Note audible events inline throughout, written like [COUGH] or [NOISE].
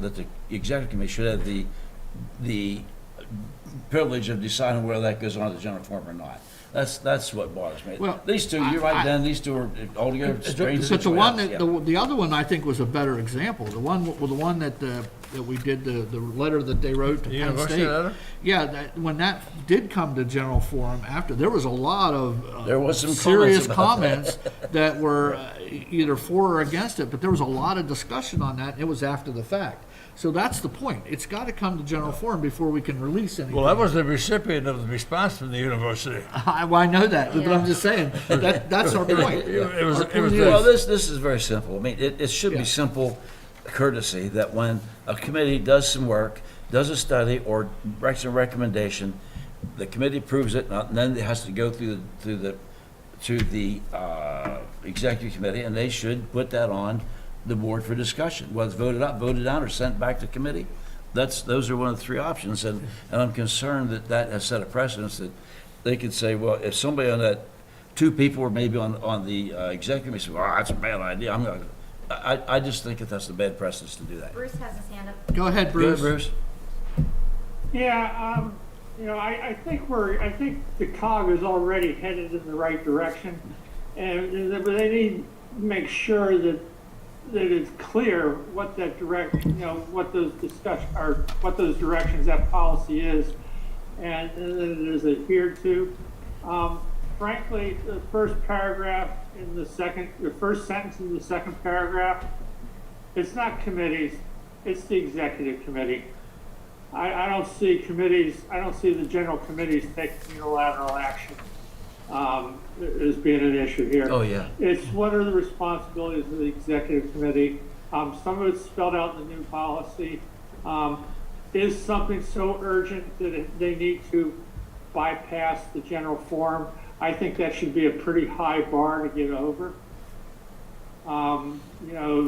that the executive committee should have the, the privilege of deciding whether that goes on the general form or not. That's, that's what bothers me. Well, These two, you're I- right, I- Dan, these two are altogether strange situations. But the one, that- yeah. the, the other one, I think, was a better example. The one, well, the one that, uh, that we did, the, the letter that they wrote to Penn University State. letter? Yeah, that, when that did come to general forum after, there was a lot of. uh, There was some comments Serious about comments that were uh, either for or against it, but there was a lot of discussion on that. and It was after the fact. So that's the point. It's got to come to general forum before we can release anything. Well, I was the recipient of the response from the university. [LAUGHS] Uh, I, well, I know that, but I'm just saying, that, that's our point. It was, Our it was, point is- the- Well, this, this is very simple. I mean, it, it should Yeah. be simple courtesy that when a committee does some work, does a study, or writes a recommendation, the committee approves it, and then it has to go through, the- through the, to the, uh, executive committee, and they should put that on the board for discussion, whether it's voted up, voted down, or sent back to committee. That's, those are one of the three options, and, and I'm concerned that that has set a precedence that they could say, well, if somebody on that two people or maybe on, on the uh, executive committee, say, well, that's a bad idea, I'm not, I, I- I just think that that's the bad precedence to do that. Bruce has his hand up. Go ahead, Good, Bruce. Bruce? Yeah, um, you know, I, I think we're, I think the cog is already headed in the right direction. And, but they need to make sure that, that it's clear what that direct, you know, what those discussion, or what those directions that policy is and that it is adhered to. Um, frankly, the first paragraph in the second, the first sentence in the second paragraph, it's not committees, it's the executive committee. I, I don't see committees, I don't see the general committees taking unilateral action, um, as being an issue here. Oh, yeah. It's what are the responsibilities of the executive committee? Um, some of it's spelled out in the new policy. Um, is something so urgent that it- they need to bypass the general forum? I think that should be a pretty high bar to get over um, you know,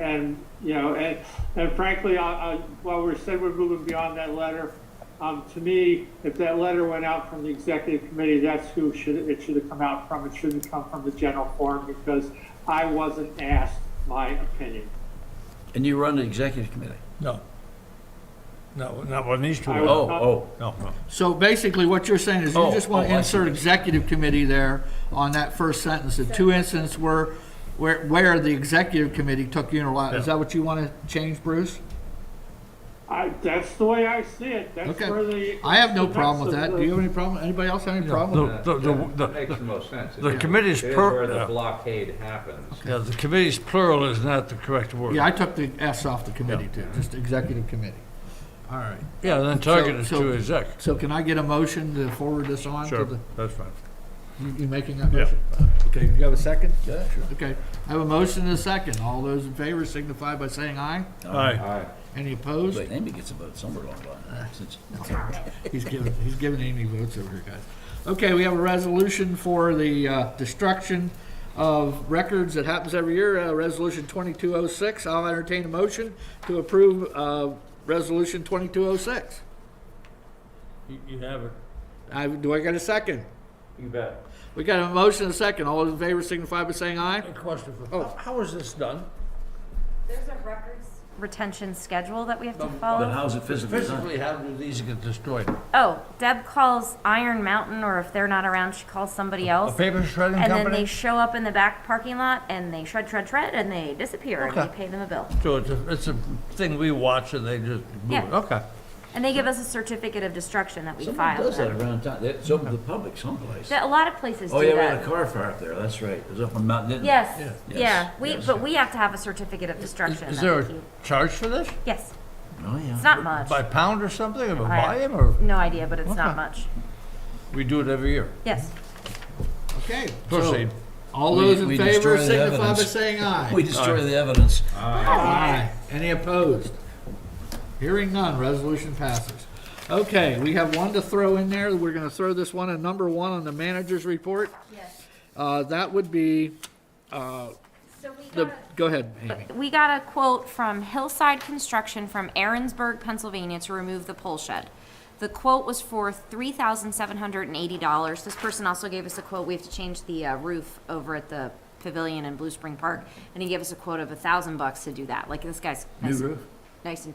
and, you know, and, and frankly, I, I, while we said we're moving beyond that letter, um, to me, if that letter went out from the executive committee, that's who should, it should have come out from. It shouldn't come from the general forum because I wasn't asked my opinion. And you run the executive committee? no. No, not when these two I were. was- Oh, oh, No, no. So basically, what you're saying is you Oh, just want oh, to I see. insert executive committee there on that first sentence. The two incidents were where, where the executive committee took unilateral. Is Yeah. that what you want to change, Bruce? I, that's the way I see it. That's Okay. where the. I have no the problem with guts that. of Do you have any problem? Anybody else have any problem? with The- the- the- the- That makes the most sense. the committee's It is per- where the yeah. blockade happens. Yeah, the committee's plural is not the correct that? word. Yeah, I took the S off the committee too, just executive committee. All right. Yeah, then target So- is so- to exec. So can I get a motion to forward this on to Sure, the, that's fine. you- you making that Yeah. motion? Okay, you have a second? yeah, sure. Okay, I have a motion and a second. All those in favor signify by saying aye. Aye. Aye. Any opposed? Wait, Amy gets a vote somewhere along the line. Since- He's giving, he's giving Amy votes over here, guys. Okay, we have a resolution for the uh, destruction of records that happens every year, uh, Resolution 2206. I'll entertain a motion to approve uh, Resolution 2206. You have it. I- Do I get a second? You bet. We got a motion and a second. All those in favor signify by saying aye. question for, Oh. how- how is this done? There's a records retention schedule that we have to But follow. how's it physically done? Physically, how do these get destroyed? Oh, Deb calls Iron Mountain, or if they're not around, she calls somebody A else. paper shredding And then they company? show up in the back parking lot and they shred, shred, shred, and they disappear and we Okay. pay them a bill. So it's a, it's a thing we watch and they just move Yeah. it, okay. And they give us a certificate of destruction that we Someone file. does that around town, it's open to the public someplace. That- A lot of places Oh, do yeah, we had a that. car fire up there, that's right, it was up on Mount Denton. Yes, Yes. yeah, we, Yes. but we have to have a certificate of destruction. Is that there we a keep. charge for this? Yes, Oh, it's yeah. not much. By pound or something, or I have by volume, or No idea, but it's not Okay. much. we do it every year? Yes. Okay. so Proceed. All We- those in we favor destroy the signify by evidence. saying We aye. destroy the evidence. Aye. Any opposed? Hearing none, resolution passes. Okay, we have one to throw in there. We're gonna throw this one, at number one on the manager's report. Yes. Uh, that would be, So we the, go ahead, Amy. We got a quote from Hillside Construction from Aaronsburg, Pennsylvania to remove the pole shed. The quote was for three thousand seven hundred and eighty dollars. This person also gave us a quote, we have to change the uh, roof over at the pavilion in Blue Spring Park, and he gave us a quote of a thousand bucks to do that, like this guy's. New nice- roof? Nice and